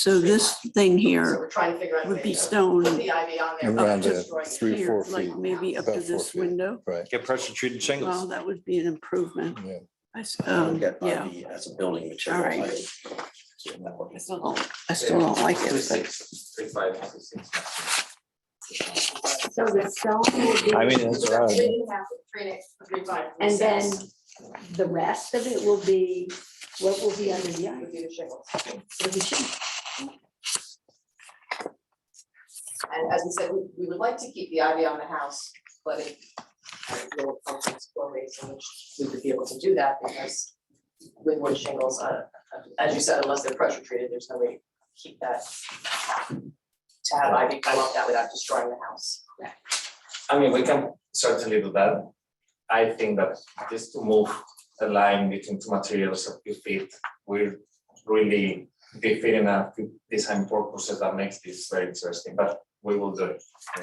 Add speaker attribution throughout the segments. Speaker 1: So this thing
Speaker 2: So
Speaker 1: here
Speaker 2: we're trying to figure out. a
Speaker 1: would
Speaker 2: way
Speaker 1: be
Speaker 2: to
Speaker 1: stone
Speaker 2: Put the ivy on there.
Speaker 1: Around
Speaker 2: without
Speaker 1: it,
Speaker 2: destroying it.
Speaker 3: three or
Speaker 1: here,
Speaker 3: four
Speaker 1: like
Speaker 3: feet,
Speaker 1: maybe up
Speaker 3: about
Speaker 1: to
Speaker 3: four
Speaker 1: this
Speaker 3: feet.
Speaker 1: window.
Speaker 3: right?
Speaker 4: Get pressure treated
Speaker 1: Well,
Speaker 4: shingles.
Speaker 1: that would be an improvement.
Speaker 3: Yeah.
Speaker 1: I s-
Speaker 5: I don't
Speaker 1: um,
Speaker 5: get
Speaker 1: Yeah,
Speaker 5: ivy as a building material.
Speaker 1: All right. I
Speaker 5: right.
Speaker 1: still don't- I still don't like it, but
Speaker 6: So the stone will be.
Speaker 4: I mean, that's what I would-
Speaker 2: Three and a half, three and a- three by-
Speaker 6: And then the rest of it will be, what will be under the
Speaker 2: Would
Speaker 6: iron?
Speaker 2: be the shingles.
Speaker 6: It'll be shingles.
Speaker 2: And as we said, we, we would like to keep the ivy on the house, but it. There were functions for ways in which we would be able to do that because with wood shingles, uh, as you said, unless they're pressure treated, there's no way to keep that. To have ivy come up that without destroying the house.
Speaker 7: I mean, we can certainly do that. I think that just to move the line between two materials a few feet will really be fitting a few design purposes that makes this very interesting, but we will do it. uh,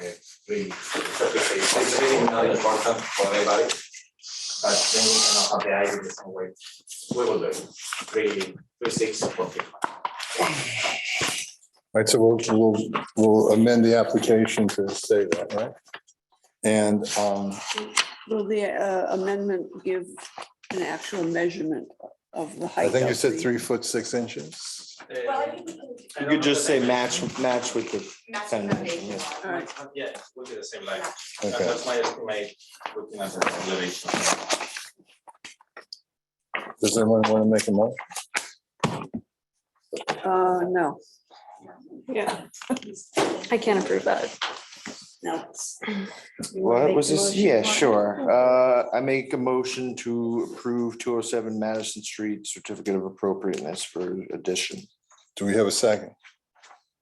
Speaker 7: Really, it's a few feet. It's really not important for everybody. But then we cannot have the idea the same way. We will do it. Really, three, six, four feet.
Speaker 3: Right, so we'll, we'll, we'll amend the application to say that, right? And, um,
Speaker 1: will the uh, amendment give an actual measurement of the height?
Speaker 3: I think you
Speaker 1: of
Speaker 3: said
Speaker 1: the-
Speaker 3: three foot, six inches.
Speaker 2: Well, I think we can
Speaker 7: Uh, I
Speaker 4: You
Speaker 7: don't
Speaker 4: could just
Speaker 7: know
Speaker 4: say
Speaker 7: the
Speaker 4: match, match with the,
Speaker 2: match
Speaker 4: Kind
Speaker 2: the
Speaker 4: of,
Speaker 2: foundation.
Speaker 4: yeah.
Speaker 2: line.
Speaker 1: All right,
Speaker 7: Yeah, we'll do the same line. And
Speaker 3: Okay,
Speaker 7: That's my estimate, looking at the elevation.
Speaker 3: does anyone want to make a motion?
Speaker 1: uh, no,
Speaker 8: Yeah. I can't approve that.
Speaker 1: no.
Speaker 8: You wanna
Speaker 4: what
Speaker 8: make
Speaker 4: was
Speaker 8: the
Speaker 4: this?
Speaker 8: motion?
Speaker 4: Yeah, sure. Uh, I make a motion to approve two oh seven Madison Street certificate of appropriateness for addition.
Speaker 3: Do we have a second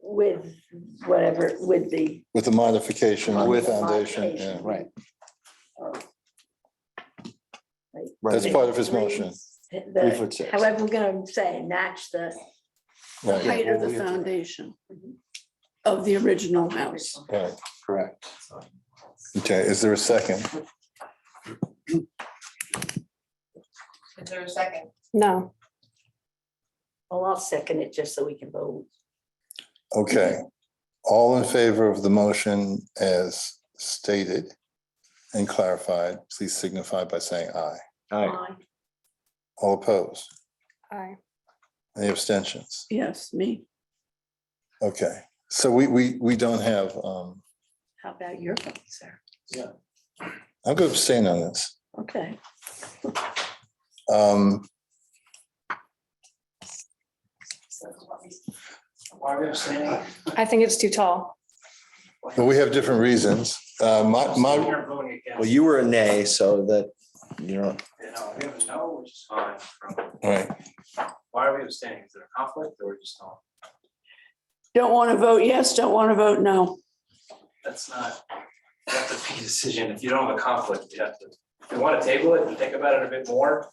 Speaker 6: With whatever, with the,
Speaker 3: with the modification on the
Speaker 4: With-
Speaker 3: foundation? yeah.
Speaker 4: Right.
Speaker 3: That's part of his motion,
Speaker 4: Three
Speaker 6: the,
Speaker 4: foot six.
Speaker 6: however we're gonna say, match the,
Speaker 3: right,
Speaker 1: Height of the
Speaker 4: Yeah.
Speaker 1: foundation of the original house.
Speaker 3: right.
Speaker 4: Correct.
Speaker 3: Okay, is there a second?
Speaker 2: Is there a second?
Speaker 8: No,
Speaker 6: well, I'll second it just so we can vote.
Speaker 3: Okay, all in favor of the motion as stated and clarified, please signify by saying aye.
Speaker 4: All right.
Speaker 6: Aye.
Speaker 3: All opposed?
Speaker 8: I,
Speaker 3: Any abstentions?
Speaker 1: Yes, me.
Speaker 3: Okay, so we, we, we don't have, um,
Speaker 6: How about your vote, sir?
Speaker 3: I'm going to abstain on this.
Speaker 6: Okay.
Speaker 3: Um,
Speaker 2: So what we- Why are we abstaining?
Speaker 8: I think it's too tall.
Speaker 3: but we have different reasons. Uh, my, my,
Speaker 7: You're voting against.
Speaker 4: Well, you were a nay, so that, you know,
Speaker 7: You know, we have a no, which is fine.
Speaker 3: right,
Speaker 7: Why are we abstaining? Is there a conflict or just not?
Speaker 1: Don't want to vote yes, don't want to vote no.
Speaker 7: That's not, you have to make a decision. If you don't have a conflict, you have to, if you want to table it and think about it a bit more. I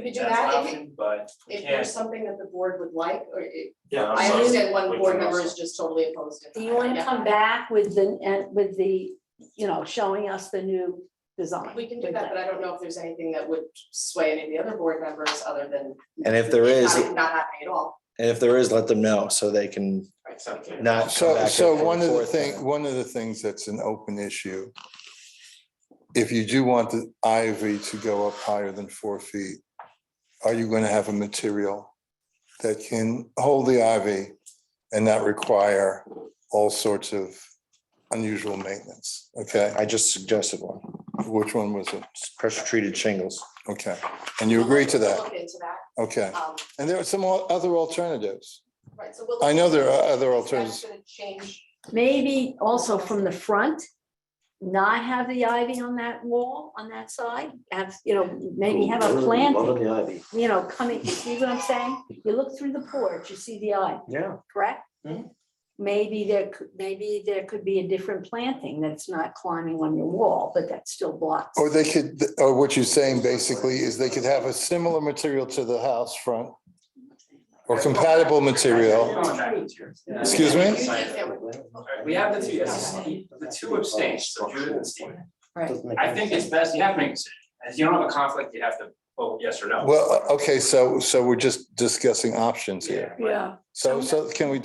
Speaker 2: We
Speaker 7: think
Speaker 2: could do
Speaker 7: that's an
Speaker 2: that if it-
Speaker 7: option, But we
Speaker 2: If there's
Speaker 7: can't.
Speaker 2: something that the board would like, or it,
Speaker 7: Yeah, I'm
Speaker 2: I
Speaker 7: sorry.
Speaker 2: understand one
Speaker 7: We
Speaker 2: board
Speaker 7: can
Speaker 2: member
Speaker 7: also-
Speaker 2: is just totally opposed to.
Speaker 6: Do you wanna
Speaker 2: Yeah.
Speaker 6: come back with the, and with the, you know, showing us the new design?
Speaker 2: We can do that, but I don't know if there's anything that would sway any of the other board members other than.
Speaker 4: and if there is,
Speaker 2: Not not happening at all.
Speaker 4: and if there is, let them know so they can
Speaker 7: It's okay.
Speaker 4: not. come back
Speaker 3: so,
Speaker 4: and
Speaker 3: so one of the
Speaker 4: forth on it.
Speaker 3: thing, one of the things that's an open issue. If you do want the ivy to go up higher than four feet, are you going to have a material that can hold the ivy and not require all sorts of unusual maintenance? Okay,
Speaker 4: I just suggested one,
Speaker 3: which one was it?
Speaker 4: pressure treated shingles.
Speaker 3: Okay, and you agree to
Speaker 2: We'll
Speaker 3: that?
Speaker 2: Look into that,
Speaker 3: Okay,
Speaker 2: um,
Speaker 3: and there are some al- other alternatives.
Speaker 2: right, so we'll.
Speaker 3: I know there are other
Speaker 2: That's
Speaker 3: alternatives.
Speaker 2: gonna change,
Speaker 6: Maybe also from the front, not have the ivy on that wall, on that side, have, you know, maybe have a planting,
Speaker 5: Loving the ivy.
Speaker 6: you know, coming, you see what I'm saying? You look through the porch, you see the ivy,
Speaker 5: Yeah.
Speaker 6: correct?
Speaker 5: Mhm.
Speaker 6: Maybe there, could maybe there could be a different planting that's not climbing on your wall, but that still blocks.
Speaker 3: Or they could, or what you're saying basically is they could have a similar material to the house front or compatible material. Excuse me?
Speaker 7: Alright, We have the two, yes, the two abstains, so Judith and Stephen.
Speaker 6: Right.
Speaker 7: I think it's best, you have to make a decision. If you don't have a conflict, you have to vote yes or no.
Speaker 3: Well, okay, so, so we're just discussing options here.
Speaker 7: Yeah.
Speaker 1: Yeah.
Speaker 3: So, so can we